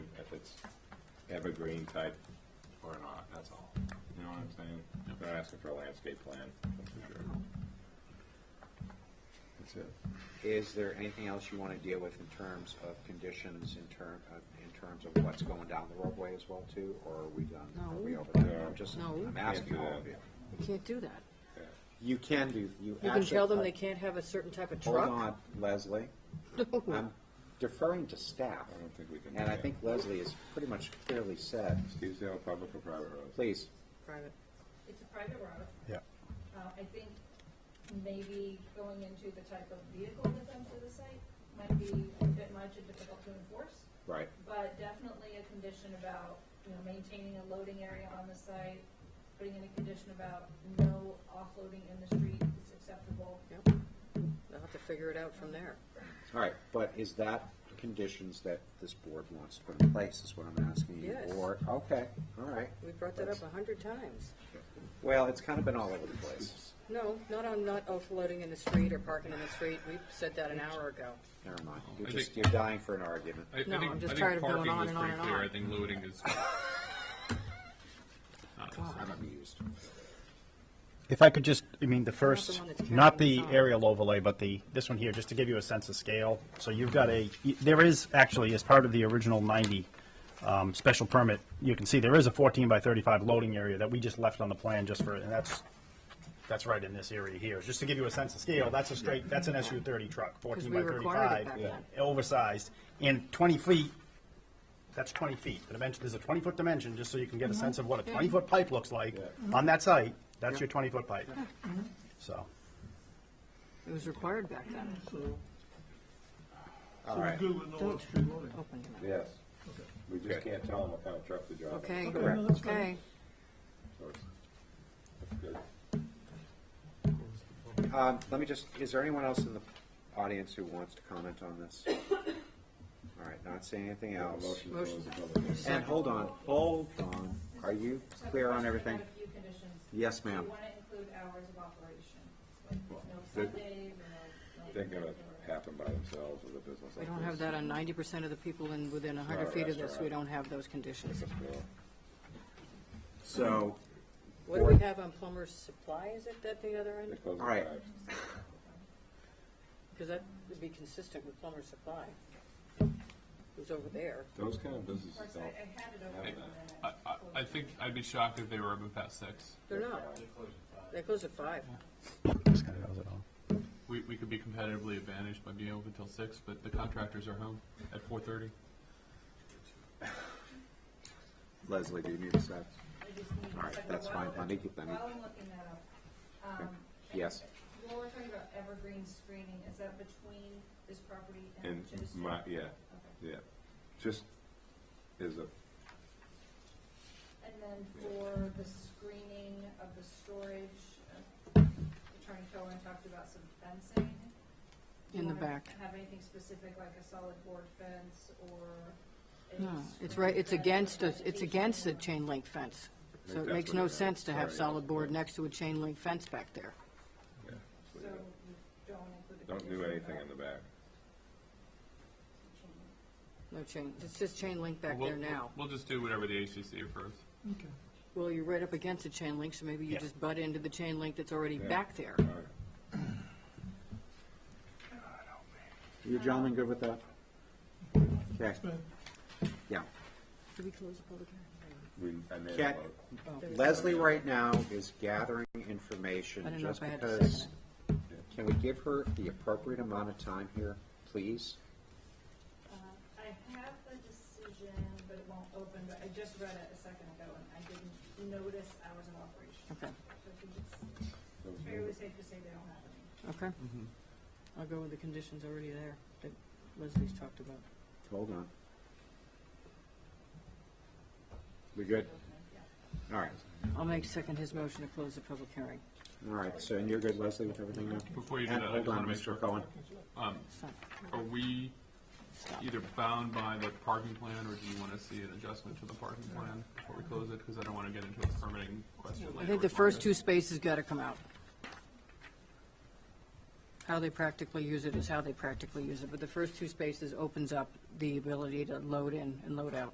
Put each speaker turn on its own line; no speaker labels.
it's evergreen type or not, that's all. You know what I'm saying? They're asking for a landscape plan, that's for sure. That's it.
Is there anything else you want to deal with in terms of conditions, in term, uh, in terms of what's going down the roadway as well too, or are we done? Are we
No.
over that? I'm just,
No.
I'm asking all of you.
Can't do that.
Yeah.
You can do, you actually.
You can tell them they can't have a certain type of truck.
Hold on, Leslie. I'm deferring to staff.
I don't think we can do
And I
that.
think Leslie has pretty much clearly said,
Stevedale, public or private roads?
please,
Private.
It's a private road.
Yeah.
Uh, I think maybe going into the type of vehicle that comes to the site might be a bit much and difficult to enforce,
right,
but definitely a condition about, you know, maintaining a loading area on the site, putting in a condition about no offloading in the street is acceptable.
Yep. They'll have to figure it out from there.
all right, but is that conditions that this board wants to put in place, is what I'm asking you?
Yes.
Or, okay, all right.
We brought that up a hundred times.
Well, it's kind of been all over the place.
No, not on not offloading in the street or parking in the street. We said that an hour ago.
Never mind, you're
I
just,
think-
you're dying for an argument.
I, I
No,
think,
I'm just
I think
tired of going
parking
on
was
and on
pretty
and
clear.
on.
I think loading is.
I'm amused.
If I could just, I mean, the first,
one that's
not
carrying
the
the sign.
aerial overlay, but the, this one here, just to give you a sense of scale. So you've got a, there is actually, as part of the original 90 um, special permit, you can see there is a 14 by 35 loading area that we just left on the plan just for, and that's, that's right in this area here. Just to give you a sense of scale, that's a straight, that's an SU-30 truck, 14
we
by
required it
35.
back then.
Oversized, and 20 feet, that's 20 feet. The dimension, there's a 20-foot dimension, just so you can get a
Mm-hmm.
sense of what a 20-foot pipe looks like on that site. That's your 20-foot pipe. So,
It was required back then.
All right,
Good with no extra loading.
Open it
Yes. We just can't tell them what kind of truck to drive.
up. Okay,
Correct. no, that's fine.
okay.
So it's- That's good.
um, let me just, is there anyone else in the audience who wants to comment on this? All right, not seeing anything
Yeah,
else.
motion to close the public hearing.
And hold on, hold on. Are you
So I have a
clear on
question. I
everything?
had a few conditions.
Yes,
Do
ma'am.
you want to include hours of operation? Like, no
they-
Sundays, no. like,
They're gonna
or-
happen by themselves with a business like this.
We don't have that on ninety percent of the people in, within a
Not
hundred
a
feet of this. We
restaurant.
don't have those conditions.
Well,
So,
What do we have on plumber's supply? Is it that the other
They
end?
close
All
at
right.
five.
Because that would be consistent with plumber's supply. It was over there.
Those kind of
Of
businesses
course, I,
don't.
I had it over.
Hey,
and then
I, I, I think I'd be shocked if they were open past six.
They're not. They close at five.
this kind of goes it all.
We, we could be competitively advantaged by being open till six, but the contractors are home at four thirty.
Leslie, do you need a sec?
I just need-
All right,
so
that's
while-
fine. Let me get them.
While I'm looking that up, um.
Yes.
Well, we're talking about evergreen screening, is that between this property and
And
to the street?
my, yeah,
Okay.
yeah. Just is a,
And then for the screening of the storage, uh, Attorney Cohen talked about some fencing. Do you
In the
wanna
back.
Have anything specific like a solid board fence or? a
No, it's
screen
right, it's
fence or
against us, it's
vegetation
against the
or-
chain link fence. So
Like
it
that's
makes
what it
no
is.
sense to have
Sorry.
solid board next to a chain link fence back there.
yeah.
So
so, yeah.
you don't include a.
Don't do
condition
anything
about
in the back.
chain-
No chain, it's just chain link back
We'll-
there now.
We'll just do whatever the HCC approves.
Well, you're right up against the chain link, so maybe you
Yeah.
just butt into the chain link that's already
Yeah.
back there.
All right.
You gentlemen good with that? Okay, yeah.
Did we close the public hearing?
We, I made a
Cat,
vote.
Oh,
Leslie right now is gathering information
I don't know
just
if I had to say
because. Can we give her the appropriate amount of time here, please?
Uh, I have the decision, but it won't open, but I just read it a second ago and I didn't notice hours of operation.
Okay,
So I think it's fairly safe to say they don't have any.
okay. I'll go with the conditions already there that Leslie's talked about.
Hold on. We good? All right,
I'll make second his motion to close the public hearing.
all right, so and you're good, Leslie, with everything now?
Before you do
And
that, I
hold
just
on,
wanna make sure-
Mr. Cohen.
Stop,
Are we
stop.
either bound by the parking plan, or do you want to see an adjustment to the parking plan before we close it? Because I don't want to get into a permitting question later.
I think the
with
first two
Marcus.
spaces got to come out. How they practically use it is how they practically use it, but the first two spaces opens up the ability to load in and load out.